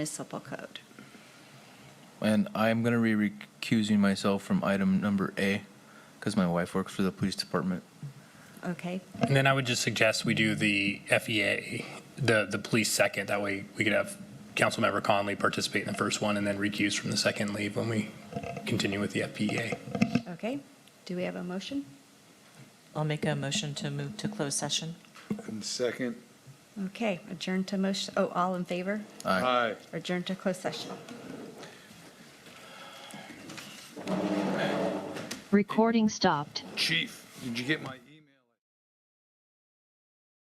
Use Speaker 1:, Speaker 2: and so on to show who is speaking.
Speaker 1: municipal code.
Speaker 2: And I'm going to be recusing myself from item number A because my wife works for the police department.
Speaker 1: Okay,
Speaker 3: And then I would just suggest we do the FEA, the, the police second. That way we could have Councilmember Conley participate in the first one and then recuse from the second and leave when we continue with the E FPEA.
Speaker 1: okay. Do we have a motion?
Speaker 4: I'll make a motion to move to closed session.
Speaker 5: And second,
Speaker 1: Okay, adjourn to motion, oh, all in favor?
Speaker 2: Aye.
Speaker 5: aye.
Speaker 1: Adjourn to closed session.
Speaker 6: Recording stopped.
Speaker 5: Chief, did you get my?